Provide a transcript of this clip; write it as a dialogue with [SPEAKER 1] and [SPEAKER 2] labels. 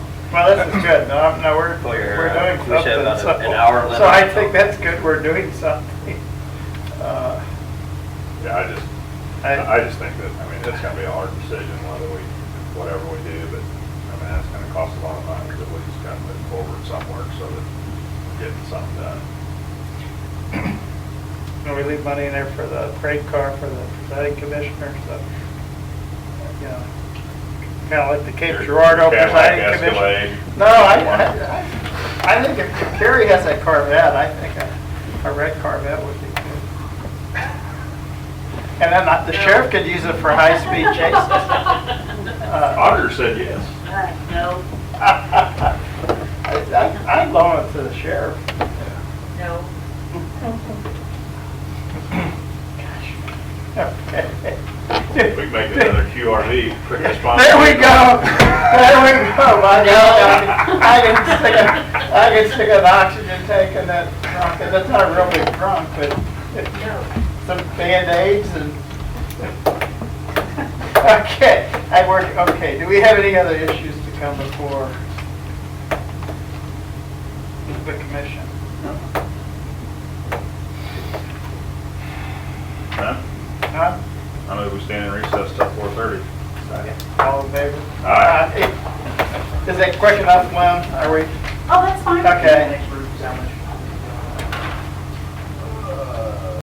[SPEAKER 1] Well, this is good. No, I'm- no, we're,
[SPEAKER 2] We're,
[SPEAKER 1] we're
[SPEAKER 2] uh,
[SPEAKER 1] doing something.
[SPEAKER 2] we should have about a- an hour
[SPEAKER 1] So I
[SPEAKER 2] limit.
[SPEAKER 1] think that's good. We're doing something. Uh,
[SPEAKER 3] Yeah, I just,
[SPEAKER 1] I-
[SPEAKER 3] I just think that, I mean, it's gonna be a hard decision whether we, whatever we do, but, I mean, that's gonna cost a lot of money, but we just gotta move forward somewhere so that we're getting something done.
[SPEAKER 1] And we leave money in there for the parade car for the presiding commissioner, so, you know, kind of like the Cape Girardeau
[SPEAKER 3] Kinda like
[SPEAKER 1] presiding
[SPEAKER 3] Escalade.
[SPEAKER 1] commissioner. No, I, I- I, I think if Kerry has that Corvette, I think a, a red Corvette would be good. And then not- the sheriff could use it for high-speed chases. Uh,
[SPEAKER 3] Auditor said yes.
[SPEAKER 4] Uh, No,
[SPEAKER 1] I- I- I'd loan it to the sheriff.
[SPEAKER 4] no.
[SPEAKER 3] We
[SPEAKER 1] We
[SPEAKER 3] can make another QRV, quick response.
[SPEAKER 1] There we go. There we go. I can, I can stick a, I can stick an oxygen tank in that trunk, and that's not a real big trunk, but some Band-Aids and. Okay, I work, okay, do we have any other issues to come before the commission?
[SPEAKER 3] Huh?
[SPEAKER 1] Huh?
[SPEAKER 3] I know we stand in recess till four thirty.
[SPEAKER 1] All in favor?
[SPEAKER 3] Aye.
[SPEAKER 1] Aye. Is that quick enough, Lynn? Are we,
[SPEAKER 4] Oh, that's fine.
[SPEAKER 1] okay?
[SPEAKER 5] Next room, how much